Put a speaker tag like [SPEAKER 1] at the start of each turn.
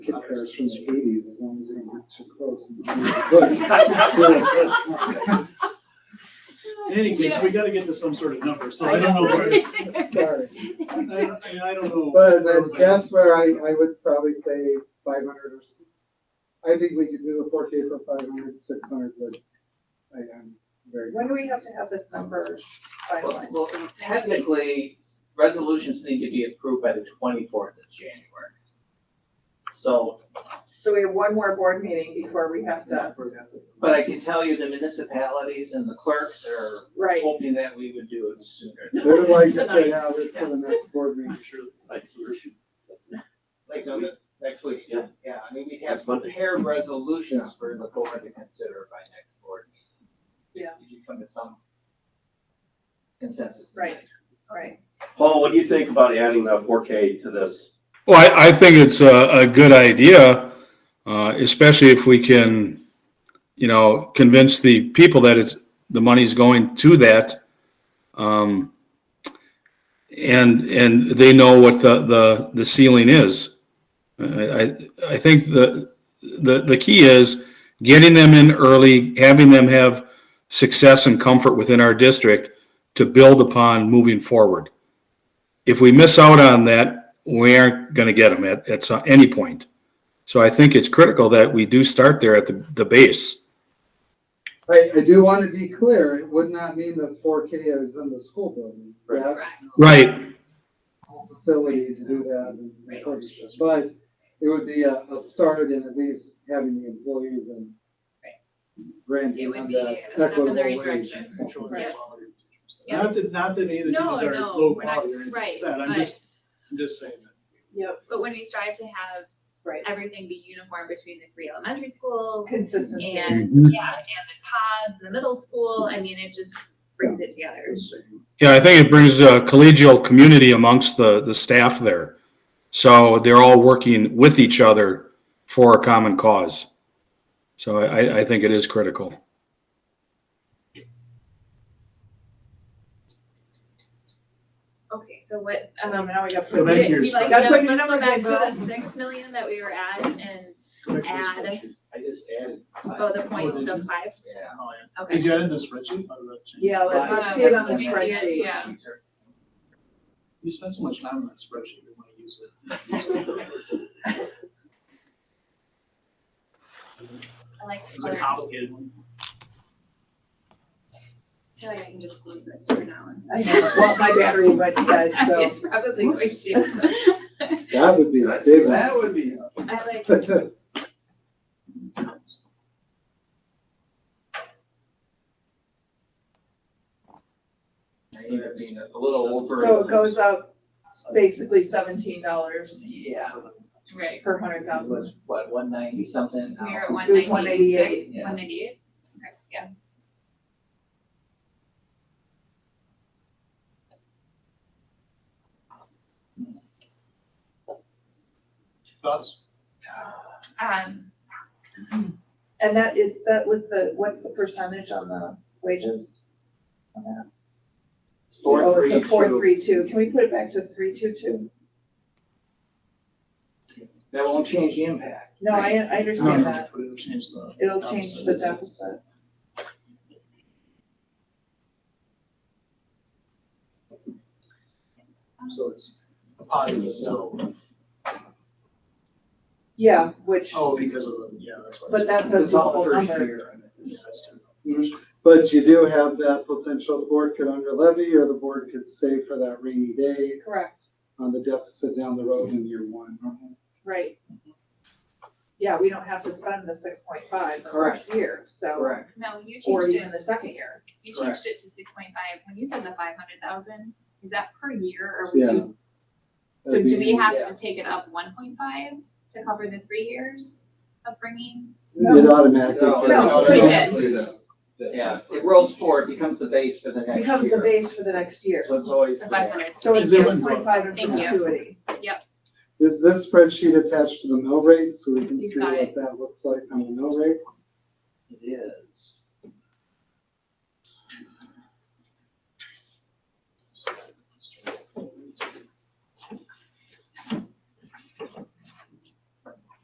[SPEAKER 1] cars from the eighties, as long as they don't get too close.
[SPEAKER 2] In any case, we gotta get to some sort of number, so I don't know where,
[SPEAKER 1] Sorry,
[SPEAKER 2] I don't, I mean, I don't know.
[SPEAKER 1] but I guess where I, I would probably say five hundred or, s- I think we could do the four K for 500, 600, but I am very.
[SPEAKER 3] When do we have to have this number
[SPEAKER 4] Well,
[SPEAKER 3] finalized?
[SPEAKER 4] well, technically, resolutions need to be approved by the twenty-fourth of January. So,
[SPEAKER 3] So we have one more board meeting before we have to,
[SPEAKER 4] but I can tell you the municipalities and the clerks are
[SPEAKER 3] right,
[SPEAKER 4] hoping that we would do it sooner.
[SPEAKER 1] They would like to say, yeah, we're for the next board meeting.
[SPEAKER 2] I'm sure, like, we're-
[SPEAKER 4] Like,
[SPEAKER 2] uh,
[SPEAKER 4] on the- next week, yeah, yeah, I mean, we'd have
[SPEAKER 5] Next Monday.
[SPEAKER 4] prepared resolutions for the board to consider by next board meeting.
[SPEAKER 3] Yeah.
[SPEAKER 4] If you come to some consensus.
[SPEAKER 3] Right. right.
[SPEAKER 5] Paul, what do you think about adding the four K to this?
[SPEAKER 6] Well, I, I think it's a, a good idea, uh, especially if we can, you know, convince the people that it's, the money's going to that. Um, and, and they know what the, the, the ceiling is. I, I, I think the, the, the key is getting them in early, having them have success and comfort within our district to build upon moving forward if we miss out on that, we aren't going to get them at, at some, any point. So I think it's critical that we do start there at the, the base.
[SPEAKER 1] I, I do want to be clear, it would not mean that four K is in the school buildings.
[SPEAKER 5] Right.
[SPEAKER 1] That's-
[SPEAKER 6] Right.
[SPEAKER 1] facility to do that. and encourage it. But it would be a, a start in at least having the employees and
[SPEAKER 7] It
[SPEAKER 1] granting
[SPEAKER 7] would
[SPEAKER 1] them
[SPEAKER 7] be
[SPEAKER 1] that
[SPEAKER 7] a step
[SPEAKER 1] equitable
[SPEAKER 7] in the right
[SPEAKER 1] wage.
[SPEAKER 7] direction.
[SPEAKER 2] Sure.
[SPEAKER 7] Yeah.
[SPEAKER 2] Not that, not that any of the
[SPEAKER 7] No,
[SPEAKER 2] teachers are
[SPEAKER 7] no,
[SPEAKER 2] low
[SPEAKER 7] we're not-
[SPEAKER 2] quality or anything
[SPEAKER 7] right,
[SPEAKER 2] like that, I'm
[SPEAKER 7] but-
[SPEAKER 2] just, I'm just saying that.
[SPEAKER 3] Yep,
[SPEAKER 7] But when we strive to have
[SPEAKER 3] right.
[SPEAKER 7] everything be uniform between the three elementary schools
[SPEAKER 3] Consistency.
[SPEAKER 7] and,
[SPEAKER 6] Mhm.
[SPEAKER 7] yeah, and the pods, the middle school, I mean, it just brings it together.
[SPEAKER 6] Yeah, I think it brings a collegial community amongst the, the staff there. So they're all working with each other for a common cause. So I, I think it is critical.
[SPEAKER 7] Okay, so what,
[SPEAKER 3] Um,
[SPEAKER 7] um,
[SPEAKER 3] now we got.
[SPEAKER 2] Go back to your
[SPEAKER 7] we like,
[SPEAKER 2] spreadsheet.
[SPEAKER 3] That's what
[SPEAKER 7] jump-
[SPEAKER 3] your
[SPEAKER 7] let's go
[SPEAKER 3] numbers
[SPEAKER 7] back
[SPEAKER 3] are,
[SPEAKER 7] to the
[SPEAKER 3] Bill.
[SPEAKER 7] six million that we were at and,
[SPEAKER 2] Go back to the
[SPEAKER 7] Add.
[SPEAKER 2] spreadsheet.
[SPEAKER 4] I just added.
[SPEAKER 7] oh, the point,
[SPEAKER 2] Oh,
[SPEAKER 7] the
[SPEAKER 2] did you?
[SPEAKER 7] five,
[SPEAKER 4] Yeah.
[SPEAKER 2] Oh, yeah. Did
[SPEAKER 7] okay.
[SPEAKER 2] you add in the spreadsheet? I read it.
[SPEAKER 3] Yeah, let- let's
[SPEAKER 7] Um,
[SPEAKER 3] see Oh, it on the
[SPEAKER 7] let me see it,
[SPEAKER 3] spreadsheet.
[SPEAKER 7] yeah.
[SPEAKER 2] You spent so much time on that spreadsheet, we want to use it.
[SPEAKER 7] I like,
[SPEAKER 2] It's a complicated one.
[SPEAKER 7] I feel like I can just close this for now. and-
[SPEAKER 3] I just want my battery went dead, so.
[SPEAKER 7] It's probably going to.
[SPEAKER 1] That would be a big
[SPEAKER 4] That would be.
[SPEAKER 7] I like,
[SPEAKER 1] one.
[SPEAKER 4] Even being a little over.
[SPEAKER 3] So it goes up basically seventeen dollars
[SPEAKER 4] Yeah,
[SPEAKER 7] right,
[SPEAKER 3] per hundred
[SPEAKER 4] that
[SPEAKER 3] thousand.
[SPEAKER 4] was what, one ninety something?
[SPEAKER 7] we are
[SPEAKER 4] now?
[SPEAKER 7] at one
[SPEAKER 3] It was one
[SPEAKER 7] ninety-eight,
[SPEAKER 3] eighty-eight,
[SPEAKER 4] yeah.
[SPEAKER 7] one ninety-eight, okay, yeah.
[SPEAKER 2] Thoughts?
[SPEAKER 7] Um,
[SPEAKER 3] And that is, that with the, what's the percentage on the wages? on that?
[SPEAKER 4] Four,
[SPEAKER 3] Oh, it's
[SPEAKER 4] three,
[SPEAKER 3] a four,
[SPEAKER 4] two.
[SPEAKER 3] three, two. Can we put it back to three, two, two?
[SPEAKER 4] That won't change the impact.
[SPEAKER 3] No, I, I understand that.
[SPEAKER 2] But it'll change the.
[SPEAKER 3] It'll change the deficit.
[SPEAKER 2] So it's a positive, so,
[SPEAKER 3] Yeah, which,
[SPEAKER 2] oh, because of the, yeah, that's why. it's-
[SPEAKER 3] but that's a
[SPEAKER 4] It's all
[SPEAKER 3] double
[SPEAKER 4] first
[SPEAKER 3] number.
[SPEAKER 4] year.
[SPEAKER 2] Yeah, that's true.
[SPEAKER 1] But you do have that potential, the board could under levy or the board could save for that rainy day
[SPEAKER 3] Correct,
[SPEAKER 1] on the deficit down the road in year one.
[SPEAKER 3] right. Yeah, we don't have to spend the six point five the first year, so,
[SPEAKER 4] Correct.
[SPEAKER 7] no, you
[SPEAKER 3] or
[SPEAKER 7] changed it.
[SPEAKER 3] even the second year.
[SPEAKER 7] You
[SPEAKER 4] Correct.
[SPEAKER 7] changed it to six point five, when you said the five hundred thousand, is that per year or? would
[SPEAKER 1] Yeah.
[SPEAKER 7] you- So do we have
[SPEAKER 4] yeah.
[SPEAKER 7] to take it up one point five to cover the three years of bringing?
[SPEAKER 1] It automatically.
[SPEAKER 4] No,
[SPEAKER 3] No,
[SPEAKER 7] we
[SPEAKER 4] Yeah, it rolls forward, becomes the base for the next year.
[SPEAKER 3] Becomes the base for the next year.
[SPEAKER 4] So it's always
[SPEAKER 7] The
[SPEAKER 4] there.
[SPEAKER 7] five hundred,
[SPEAKER 3] So it's
[SPEAKER 2] Is it
[SPEAKER 3] six
[SPEAKER 2] one-
[SPEAKER 3] point five in
[SPEAKER 7] Thank you.
[SPEAKER 3] perpetuity.
[SPEAKER 7] yep,
[SPEAKER 1] Is this spreadsheet attached to the mill rate so we can
[SPEAKER 7] You've
[SPEAKER 1] see
[SPEAKER 7] got
[SPEAKER 1] what
[SPEAKER 7] it.
[SPEAKER 1] that looks like on the mill rate?
[SPEAKER 4] It is.